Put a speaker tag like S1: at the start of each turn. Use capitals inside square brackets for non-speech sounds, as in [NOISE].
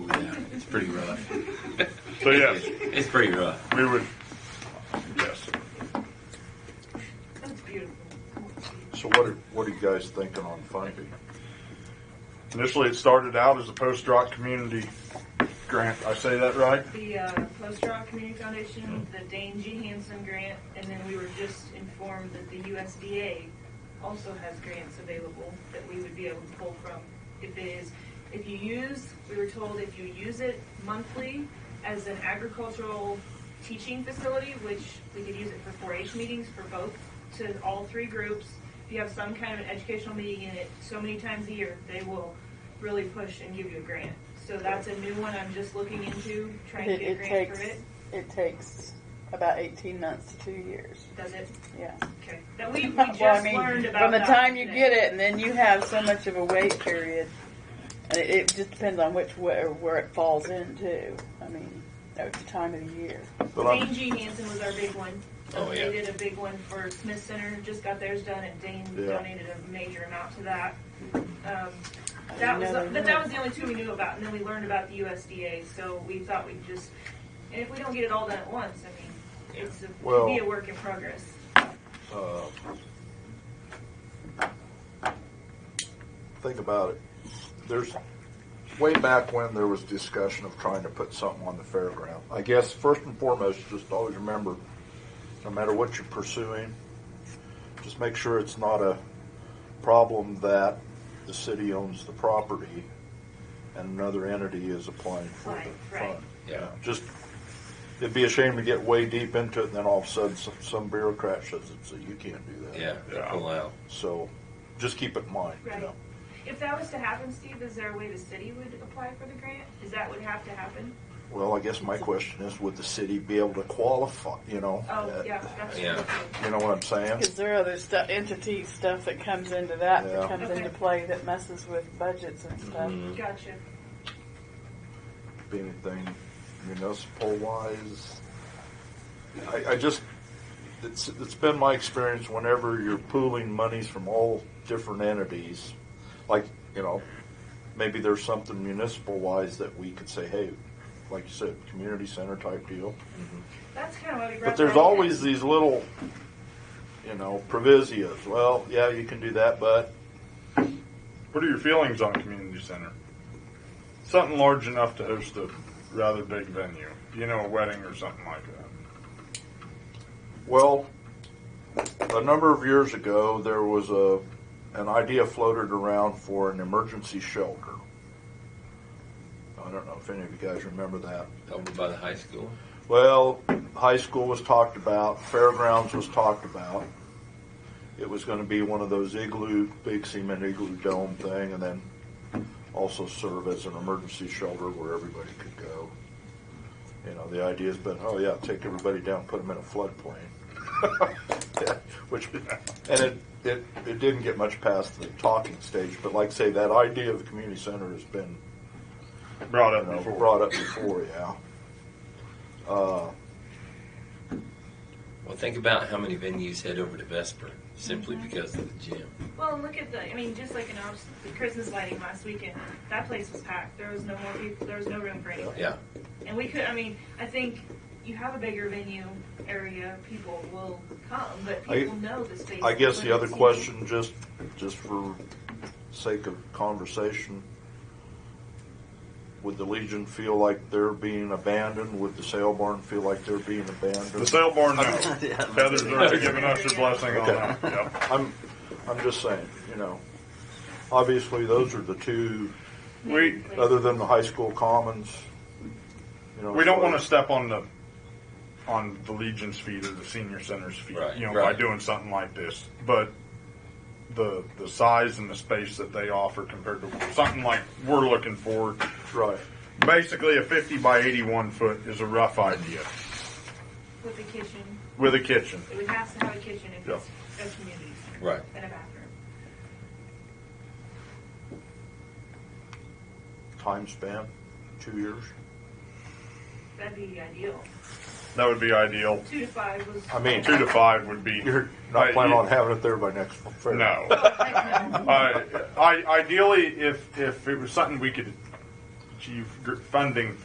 S1: It's pretty rough.
S2: So
S3: Oh,
S2: yes,
S1: It's pretty rough.
S2: we would, yes.
S4: That's beautiful.
S3: So what are, what are you guys thinking on funding?
S2: Initially, it started out as a post-rock community grant. I say that right?
S4: The uh, Post Rock Community Foundation, the Dane G. Hansen grant, and then we were just informed that the USDA also has grants available that we would be able to pull from. If it is, if you use, we were told if you use it monthly as an agricultural teaching facility, which we could use it for 4-H meetings for both, to all three groups. If you have some kind of an educational meeting in it so many times a year, they will really push and give you a grant. So that's a new one I'm just looking into, trying to
S5: It,
S4: get a
S5: it
S4: grant
S5: takes
S4: for it.
S5: it takes about eighteen months to two years.
S4: Does it? [LAUGHS]
S5: Yeah.
S4: Okay. That we, we
S5: [LAUGHS] Well,
S4: just
S5: I mean,
S4: learned about
S5: from the
S4: that
S5: time you
S4: today.
S5: get it, and then you have so much of a wait period. And it, it just depends on which where, where it falls into. I mean, at the time of the year.
S2: But I'm-
S4: Dane G. Hansen was our big one.
S1: Oh, yeah.
S4: They did a big one for Smith Center, just got theirs done, and Dane
S3: Yeah.
S4: donated a major amount to that. Um,
S5: I
S4: that was,
S5: didn't know they
S4: but
S5: had.
S4: that was the only two we knew about, and then we learned about the USDA, so we thought we'd just, and if we don't get it all done at once, I mean, it's a,
S3: Well-
S4: be a work in progress.
S3: Uh, Think about it. There's, way back when there was discussion of trying to put something on the fairground. I guess first and foremost, just always remember, no matter what you're pursuing, just make sure it's not a problem that the city owns the property and another entity is applying for
S4: Right,
S3: the
S4: right.
S3: fund.
S1: Yeah.
S3: Just, it'd be a shame to get way deep into it and then all of a sudden some, some bureaucrat says, "So you can't do that."
S1: Yeah.
S2: Yeah.
S1: Pull out.
S3: So, just keep it in mind, you
S4: Right.
S3: know.
S4: If that was to happen, Steve, is there a way the city would apply for the grant? Is that would have to happen?
S3: Well, I guess my question is, would the city be able to qualify, you know?
S4: Oh,
S3: that-
S4: yeah, that's
S1: Yeah.
S4: true.
S3: You know what I'm saying?
S5: Because there are other stuff, entity stuff that comes into that
S3: Yeah.
S5: that comes
S4: Okay.
S5: into play that messes with budgets and stuff.
S4: Mm-hmm. Gotcha.
S3: Be anything municipal wise. I, I just, it's, it's been my experience whenever you're pooling monies from all different entities, like, you know, maybe there's something municipal wise that we could say, hey, like you said, community center type deal.
S4: That's kind of what we brought
S3: But there's
S4: that up.
S3: always these little, you know, provisias. Well, yeah, you can do that, but
S2: What are your feelings on community center? Something large enough to host a rather big venue, you know, a wedding or something like that.
S3: well, a number of years ago there was a an idea floated around for an emergency shelter. I don't know if any of you guys remember that.
S1: Over by the high school.
S3: Well, high school was talked about, fairgrounds was talked about. It was going to be one of those igloo, big cement igloo dome thing, and then also serve as an emergency shelter where everybody could go. You know, the idea's been, oh yeah, take everybody down, put them in a floodplain. Which, and it, it, it didn't get much past the talking stage, but like I say, that idea of a community center has been
S2: [LAUGHS] Brought up
S3: you know,
S2: before.
S3: brought up before, yeah. Uh,
S1: Well, think about how many venues head over to Vesper simply because of the gym.
S4: Well, and look at the, I mean, just like in Austin, the Christmas lighting last weekend, that place was packed. There was no more people, there was no room for anyone.
S1: Yeah.
S4: And we could, I mean, I think you have a bigger venue area, people will come, but
S3: I-
S4: people know the space.
S3: I guess the other
S4: limits, you know?
S3: question, just, just for sake of conversation, would the Legion feel like they're being abandoned? Would the sale barn feel like they're being
S2: The
S3: abandoned?
S2: sale
S3: [LAUGHS]
S2: barn, no. Heather's already given us her blessing on
S3: Okay.
S2: that. Yep.
S3: I'm, I'm just saying, you know, obviously those are the two,
S2: We
S3: other than the high school commons, you know.
S2: we don't
S3: so-
S2: want to step on the on the Legion's feet or the senior center's feet,
S1: Right,
S2: you know,
S1: right.
S2: by doing something like this. But the the size and the space that they offer compared to something like we're looking for,
S3: Right,
S2: basically a 50 by 81 foot is a rough idea
S4: With the kitchen,
S2: with a kitchen.
S4: it would have to have a kitchen if
S2: Yeah.
S4: it's a community center.
S1: Right.
S4: And a bathroom.
S3: time span, two years.
S4: That'd be ideal.
S2: That would be ideal.
S4: Two to five was.
S3: I mean,
S2: Two to
S3: [LAUGHS]
S4: [LAUGHS]
S2: five would be.
S3: you're
S2: I-
S3: not planning on having it there by next fair.
S2: No. I, I ideally, if if it was something we could achieve gr- funding